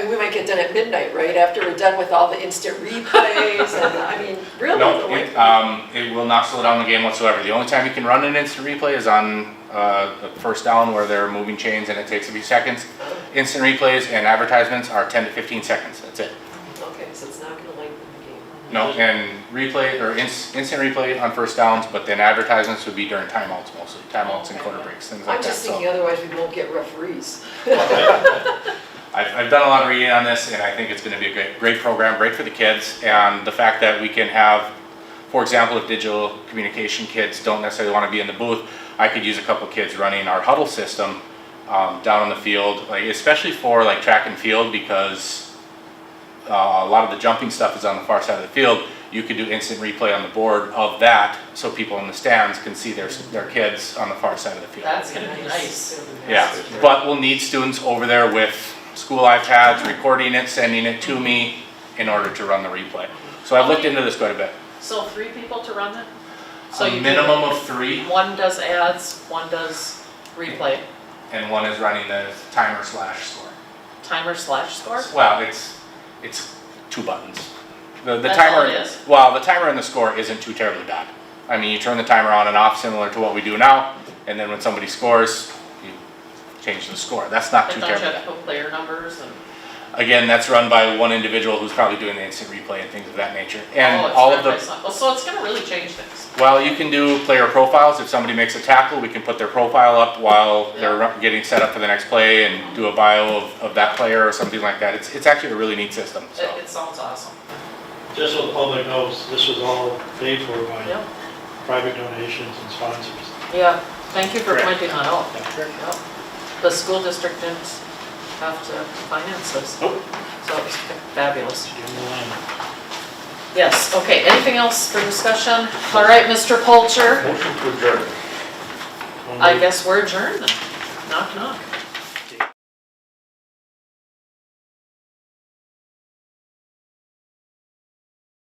mean, we might get done at midnight, right, after we're done with all the instant replays, and, I mean, really, the No, way. it, um, it will not slow down the game whatsoever. The only time you can run an instant replay is on, uh, the first down where they're moving chains and it takes a few seconds. Instant replays and advertisements are ten to fifteen seconds, that's it. Okay, so it's not gonna lengthen the game. No, and replay, or ins- instant replay on first downs, but then advertisements would be during timeouts mostly, timeouts and quarter breaks, things like I'm that, just so. thinking, otherwise we won't get referees. I've, I've done a lot of reading on this, and I think it's gonna be a great, great program, great for the kids, and the fact that we can have, for example, if digital communication kids don't necessarily wanna be in the booth, I could use a couple kids running our huddle system, um, down on the field, like, especially for like track and field, because uh, a lot of the jumping stuff is on the far side of the field, you could do instant replay on the board of that, so people in the stands can see their, their kids on the far side of the field. That's gonna be nice. Yeah, but we'll need students over there with school iPads, recording it, sending it to me in order to run the replay. So I've looked into this quite a bit. So three people to run it? So you A do- minimum of three, One does ads, one does replay, and one is running the timer slash score. timer slash score? Well, it's, it's two buttons. The, the That's all timer, it is? well, the timer and the score isn't too terribly bad. I mean, you turn the timer on and off similar to what we do now, and then when somebody scores, you change the score. That's not too And don't terribly you bad. have to put player numbers and, Again, that's run by one individual who's probably doing the instant replay and things of that nature. And oh, it's all of run by the, some, oh, so it's gonna really change things. while you can do player profiles, if somebody makes a tackle, we can put their profile up while they're ru- getting set up for the next play and do a bio of, of that player or something like that. It's, it's actually a really neat system, so. It, it sounds awesome. Just so the public knows, this was all paid for by Yep, private donations and sponsors. yeah, thank you for Correct. pointing that out. Yep. The school district didn't have to finance this. Nope. So it was fabulous. Give them a line. Yes, okay, anything else for discussion? All right, Mr. Polcher, Motion to adjourn. I guess we're adjourned then. Knock, knock.